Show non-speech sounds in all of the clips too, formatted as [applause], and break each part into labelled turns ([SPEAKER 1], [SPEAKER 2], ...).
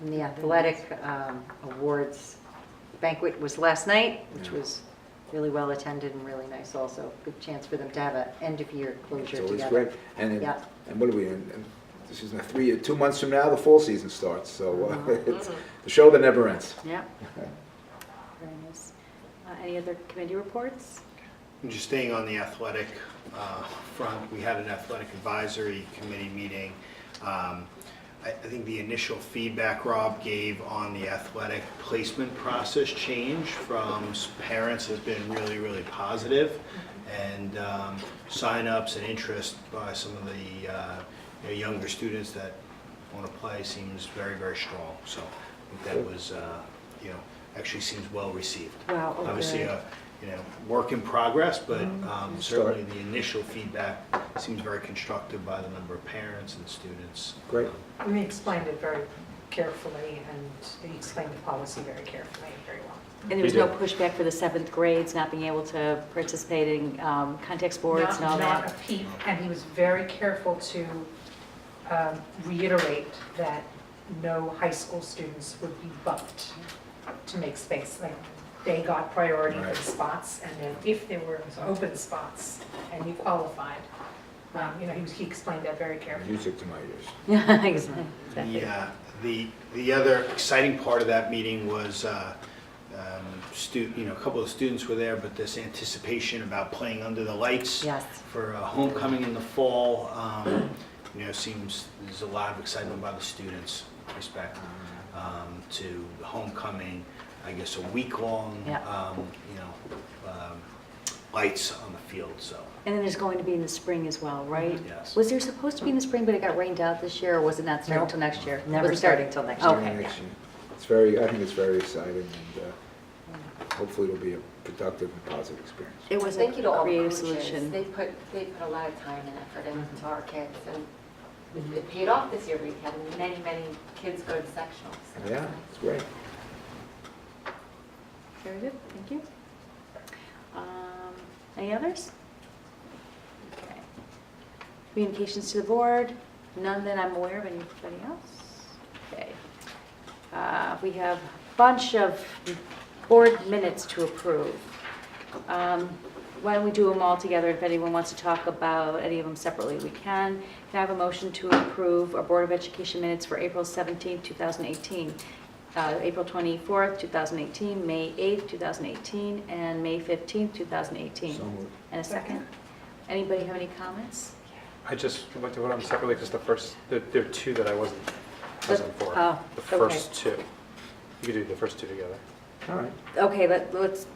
[SPEAKER 1] And the athletic um, awards banquet was last night, which
[SPEAKER 2] Yeah.
[SPEAKER 1] was really well attended and really nice also. Good chance for them to have an end of year
[SPEAKER 2] It's
[SPEAKER 1] closure
[SPEAKER 2] always
[SPEAKER 1] together.
[SPEAKER 2] great. And, then-
[SPEAKER 1] Yeah.
[SPEAKER 2] and what are we, in? And this is not three, two months from now, the fall season starts, so
[SPEAKER 1] Uh-huh.
[SPEAKER 2] uh, [laughs] it's the show that never ends.
[SPEAKER 1] Yeah.
[SPEAKER 2] [laughs]
[SPEAKER 3] Very nice. Uh, Any other
[SPEAKER 1] [laughs]
[SPEAKER 3] committee reports?
[SPEAKER 4] And Just staying on the athletic uh, front, we had an athletic advisory committee meeting. Um, I I think the initial feedback Rob gave on the athletic placement process change from s- parents has been really, really positive. And um, signups and interest by some of the uh, you know, younger students that want to play seems very, very strong. So I think that was, uh, you know, actually seems well received
[SPEAKER 3] Wow, oh,
[SPEAKER 4] obviously uh,
[SPEAKER 3] good.
[SPEAKER 4] a, you know, work in progress, but um, certainly
[SPEAKER 2] Start.
[SPEAKER 4] the initial feedback seems very constructive by the number of parents and students. Um,
[SPEAKER 2] Great.
[SPEAKER 5] We explained it very carefully, and he explained the policy very carefully and very well.
[SPEAKER 3] And there was no pushback for the seventh grades not being able to participate in um, context boards and all
[SPEAKER 5] Not- Not
[SPEAKER 3] that?
[SPEAKER 5] a peep, and he was very careful to um, reiterate that no high school students would be bumped to make space. Like, they got priority for
[SPEAKER 2] Right.
[SPEAKER 5] the spots, and then if there were open spots and you qualified, um, you know, he was- he explained that very carefully.
[SPEAKER 2] Music to my ears.
[SPEAKER 3] Yeah, exactly.
[SPEAKER 4] The, uh, the, the other exciting part of that meeting was, uh, um, stu, you know, a couple of students were there, but this anticipation about playing under the lights.
[SPEAKER 1] Yes.
[SPEAKER 4] For uh, homecoming in the fall, um, you know, seems, there's a lot of excitement by the students with respect um, to homecoming, I guess, a week-long,
[SPEAKER 1] Yeah.
[SPEAKER 4] um, you know, um, lights on the field, so.
[SPEAKER 3] And then there's going to be in the spring as well, right?
[SPEAKER 4] Yes.
[SPEAKER 3] Was there supposed to be in the spring, but it got rained out this year, or was it not starting
[SPEAKER 1] No.
[SPEAKER 3] till next year?
[SPEAKER 1] Never
[SPEAKER 3] Was it
[SPEAKER 1] starting till next
[SPEAKER 3] Okay.
[SPEAKER 1] year.
[SPEAKER 2] Yeah, actually, It's very, I think it's very exciting, and
[SPEAKER 1] Mm-hmm.
[SPEAKER 2] uh, hopefully it'll be a productive and positive experience.
[SPEAKER 3] It was a
[SPEAKER 6] Thank you to all
[SPEAKER 3] creative
[SPEAKER 6] coaches. They
[SPEAKER 3] solution. Mm-hmm.
[SPEAKER 6] put, they put a lot of time and effort into our kids, and it- it paid off this year. We had many, many kids go to sectionals.
[SPEAKER 2] Yeah, it's great.
[SPEAKER 3] Very good, thank you. Um, Any others? Okay. Communications to the board, none that I'm aware of, anybody else? Okay. Uh, We have a bunch of board minutes to approve. Um, Why don't we do them all together, if anyone wants to talk about any of them separately, we can. Can I have a motion to approve our Board of Education minutes for April 17th, 2018, uh, April 24th, 2018, May 8th, 2018, and May 15th, 2018?
[SPEAKER 2] So moved.
[SPEAKER 3] And a second?
[SPEAKER 5] Second.
[SPEAKER 3] Anybody have any comments?
[SPEAKER 7] I just would like to vote on them separately because the first, there there are two that I wasn't present for.
[SPEAKER 3] oh,
[SPEAKER 7] The
[SPEAKER 3] okay.
[SPEAKER 7] first two. You could do the first two together.
[SPEAKER 2] All right.
[SPEAKER 3] Okay, let- let's,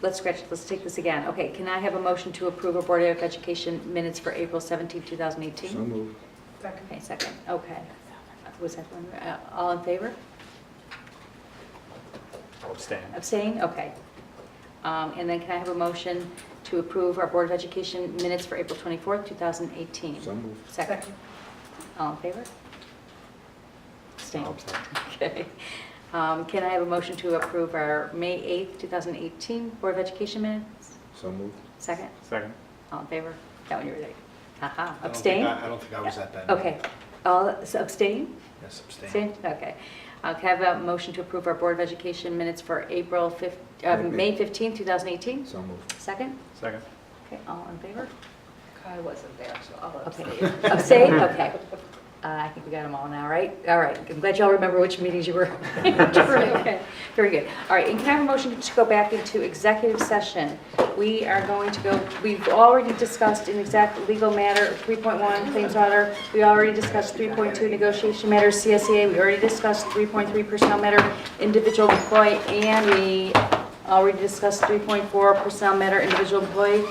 [SPEAKER 3] let's scratch, let's take this again. Okay, can I have a motion to approve our Board of Education minutes for April 17th, 2018?
[SPEAKER 2] So moved.
[SPEAKER 5] Second.
[SPEAKER 3] Okay, second, okay. Was that one, uh, all in favor?
[SPEAKER 7] I'll abstain.
[SPEAKER 3] Abstain, okay. Um, And then can I have a motion to approve our Board of Education minutes for April 24th, 2018?
[SPEAKER 2] So moved.
[SPEAKER 3] Second, all in favor? Abstain.
[SPEAKER 7] I'll abstain.
[SPEAKER 3] [laughs] Okay. Um, Can I have a motion to approve our May 8th, 2018 Board of Education minutes?
[SPEAKER 2] So moved.
[SPEAKER 3] Second,
[SPEAKER 7] Second.
[SPEAKER 3] all in favor? That one you were like, haha,
[SPEAKER 4] I don't think
[SPEAKER 3] abstain?
[SPEAKER 4] I I don't think I was at that.
[SPEAKER 3] Okay,
[SPEAKER 4] meeting.
[SPEAKER 3] all, so abstain?
[SPEAKER 4] Yes, abstain.
[SPEAKER 3] Abstain? Okay. Uh, Can I have a motion to approve our Board of Education minutes for April 5th, uh,
[SPEAKER 2] Wait a minute.
[SPEAKER 3] May 15th, 2018?
[SPEAKER 2] So moved.
[SPEAKER 3] Second?
[SPEAKER 7] Second.
[SPEAKER 3] Okay, all in favor?
[SPEAKER 6] I wasn't there, so I'll
[SPEAKER 3] Okay. [laughs] Abstain? Okay. Uh, I think we got them all now, right? All right. I'm glad y'all remember which meetings you were. Okay. Very good. All right, and can I have a motion to go back into executive session? We are going to go, we've already discussed in exact legal matter, 3.1 claims matter. We already discussed 3.2 negotiation matter, CSEA. We already discussed 3.3 personnel matter, individual employee, and we already discussed 3.4 personnel matter, individual employee.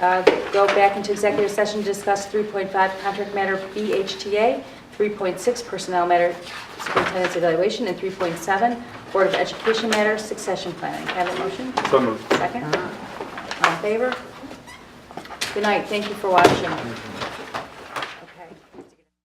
[SPEAKER 3] Uh, Go back into executive session, to discuss 3.5 contract matter BHTA, 3.6 personnel matter superintendent's evaluation, and 3.7 Board of Education matter succession planning. Can I have a motion?
[SPEAKER 7] So moved.
[SPEAKER 3] Second? All in favor? Good night, thank you for watching.